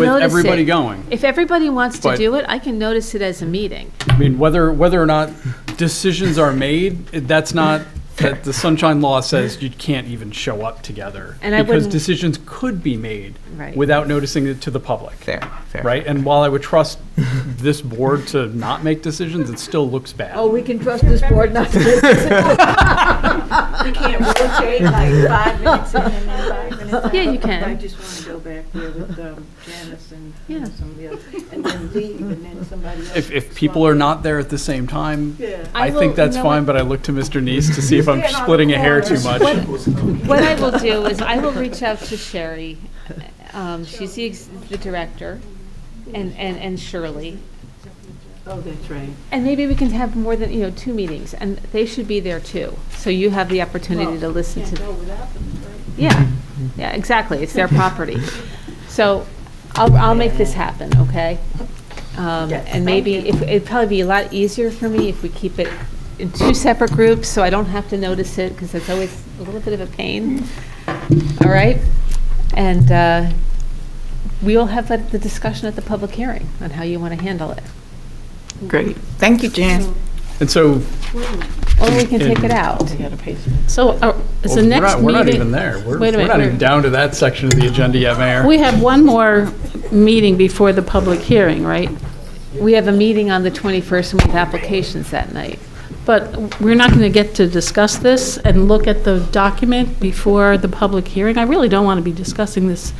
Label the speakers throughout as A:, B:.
A: with
B: notice
A: everybody
B: it.
A: going.
B: If everybody wants to
A: But-
B: do it, I can notice it as a meeting.
A: I mean, whether, whether or not decisions are made, that's not, that the sunshine law says you can't even show up together.
B: And I
A: Because
B: wouldn't-
A: decisions could be made
B: Right.
A: without noticing it to the public.
C: Fair, fair.
A: Right? And while I would trust this board to not make decisions, it still looks
D: Oh,
A: bad.
D: we can trust this board not to.
E: can't rotate like five minutes in and then five minutes out.
B: Yeah, you can.
E: I just want to go back there with um, Janice and
B: Yeah.
E: and somebody else, and then leave, and then somebody else.
A: If, if people are not there at the same time,
E: Yeah.
A: I
B: I
A: think
B: will-
A: that's
B: you know what?
A: fine, but I look to Mr. Neese to see if I'm
E: Stand on the
A: splitting a hair
E: corner.
A: too much.
B: What I will do is I will reach out to Sherry, um, she's the, ex- the director, and, and, and Shirley.
E: Oh, that's right.
B: And maybe we can have more than, you know, two meetings, and they should be there too. So you have the opportunity to listen
E: Can't
B: to,
E: go without them, right?
B: yeah, yeah, exactly, it's their property. So I'll, I'll make this happen, okay? Um, and maybe, if- it'd probably be a lot easier for me if we keep it in two separate groups, so I don't have to notice it, because it's always a little bit of a pain. All right? And, uh, we'll have the the discussion at the public hearing on how you want to handle it.
C: Great. Thank you, Jan.
A: And so,
B: Or we can take it out.
F: So uh, is
A: well, we're
F: the
A: not,
F: next meeting?
A: we're not even there. We're
F: Wait a
A: we're not even
F: minute.
A: down to that section of the agenda yet, Mayor.
F: we're- We have one more meeting before the public hearing, right?
B: We have a meeting on the 21st and we have applications that night.
F: But we're not going to get to discuss this and look at the document before the public hearing. I really don't want to be discussing this,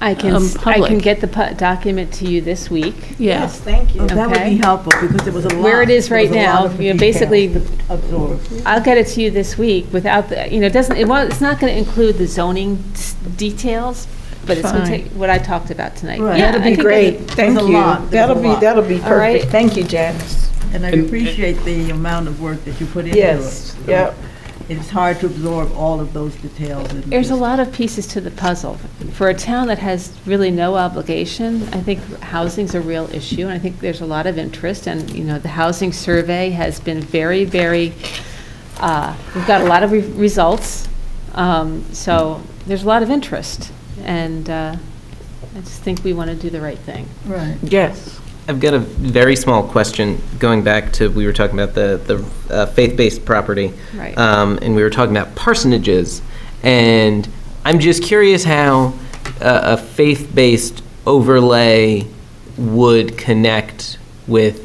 B: I can,
F: Um,
B: s- I can
F: public.
B: get the pu- document to you this week.
F: yeah.
E: Thank you.
D: Oh, That would
B: Okay.
D: be helpful, because it was a lot.
B: Where it is
D: there was
B: right
D: a lot
B: now,
D: of
B: you know,
D: detail
B: basically-
D: to absorb.
B: I'll get it to you this week without, the you know, it doesn't, it won't, it's not going to include the zoning s- details, but it's going to
F: Fine.
B: take what I talked about tonight.
D: Right.
B: Yeah,
D: That'll
B: I
D: be
B: think it-
D: great.
C: Thank
D: There's a
C: you.
D: lot. There's a
C: That'll be,
D: lot.
C: that'll be
B: All right.
C: perfect. Thank you, Janice.
D: And I
A: And-
D: appreciate the amount of work that you put into it.
C: Yes,
D: So
C: yep.
D: It's hard to absorb all of those details. in
B: There's a
D: just-
B: lot of pieces to the puzzle. For a town that has really no obligation, I think housing's a real issue, and I think there's a lot of interest, and, you know, the housing survey has been very, very, uh, we've got a lot of re- results, Um, so there's a lot of interest, and uh, I just think we want to do the right thing.
D: Right.
C: Yes. I've got a very small question, going back to, we were talking about the, the uh, faith-based property.
B: Right.
C: Um, and we were talking about parsonages. And I'm just curious how uh, a faith-based overlay would connect with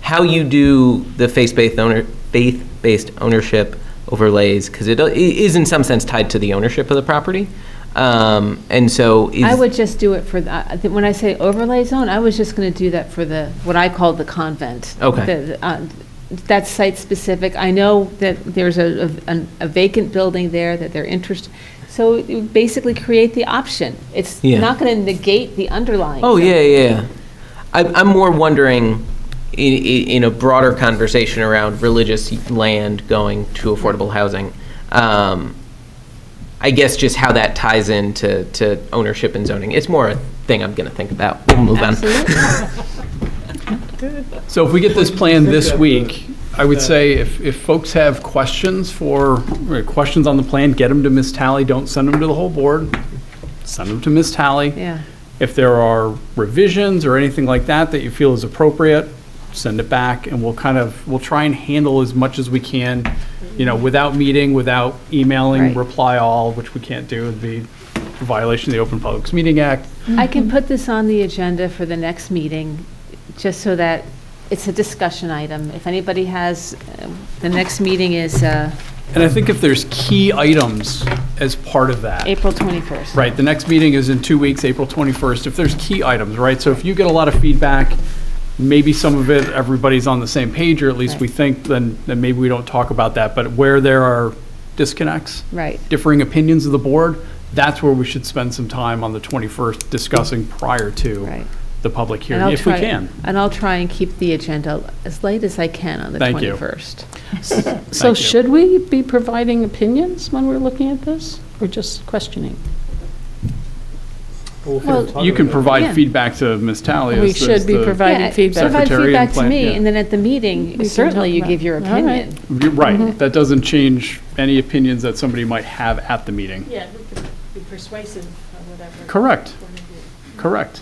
C: how you do the faith-based owner, faith-based ownership overlays, because it i- is in some sense tied to the ownership of the property. Um, and so is.
B: I would just do it for, the- I- I- when I say overlay zone, I was just going to do that for the, what I call the convent.
C: Okay.
B: The- the, uh, That's site-specific. I know that there's a a- a vacant building there that they're interested, so you basically create the option. It's
C: Yeah.
B: not going to negate the underlying.
C: Oh
B: zone.
C: yeah, yeah. yeah. I, I'm more wondering in, in a broader conversation around religious land going to affordable housing. Um, I guess just how that ties into to ownership and zoning. It's more a thing I'm going to think about. We'll move on.
B: Absolutely.
A: So if we get this plan this week, I would say if, if folks have questions for, or questions on the plan, get them to Ms. Tally. Don't send them to the whole board. Send them to Ms. Tally.
B: Yeah.
A: If there are revisions or anything like that that you feel is appropriate, send it back and we'll kind of, we'll try and handle as much as we can, you know, without meeting, without emailing,
B: Right.
A: reply all, which we can't do, it'd be a violation of the Open Publics Meeting Act.
B: I can put this on the agenda for the next meeting, just so that it's a discussion item. If anybody has, uh, the next meeting is uh,
A: And I think if there's key items as part of that.
B: April 21st.
A: Right, the next meeting is in two weeks, April 21st, if there's key items, right? So if you get a lot of feedback, maybe some of it, everybody's on the same page, or at least we think, then, then maybe we don't talk about that. But where there are disconnects,
B: Right.
A: differing opinions of the board, that's where we should spend some time on the 21st discussing prior to
B: Right.
A: the public
B: And
A: hearing,
B: I'll
A: if we
B: try-
A: can.
B: And I'll try and keep the agenda as late as I can on the
A: Thank you.
B: 21st.
F: So
A: you.
F: should we be providing opinions when we're looking at this, or just questioning?
A: You can
B: Yeah.
A: provide feedback to Ms. Tally. as-
F: We
A: as
F: should be
A: the-
F: providing
B: Yeah,
F: feedback.
B: Provide
A: Secretary and
B: feedback to
A: plan-
B: me,
A: yeah.
B: and then at the meeting,
F: can
B: certainly
F: talk
B: you
F: about
B: give your
F: it. All right.
B: opinion.
A: You're
B: Mm-hmm.
A: Right, that doesn't change any opinions that somebody might have at the meeting.
G: Yeah, be persuasive or whatever.
A: Correct, correct.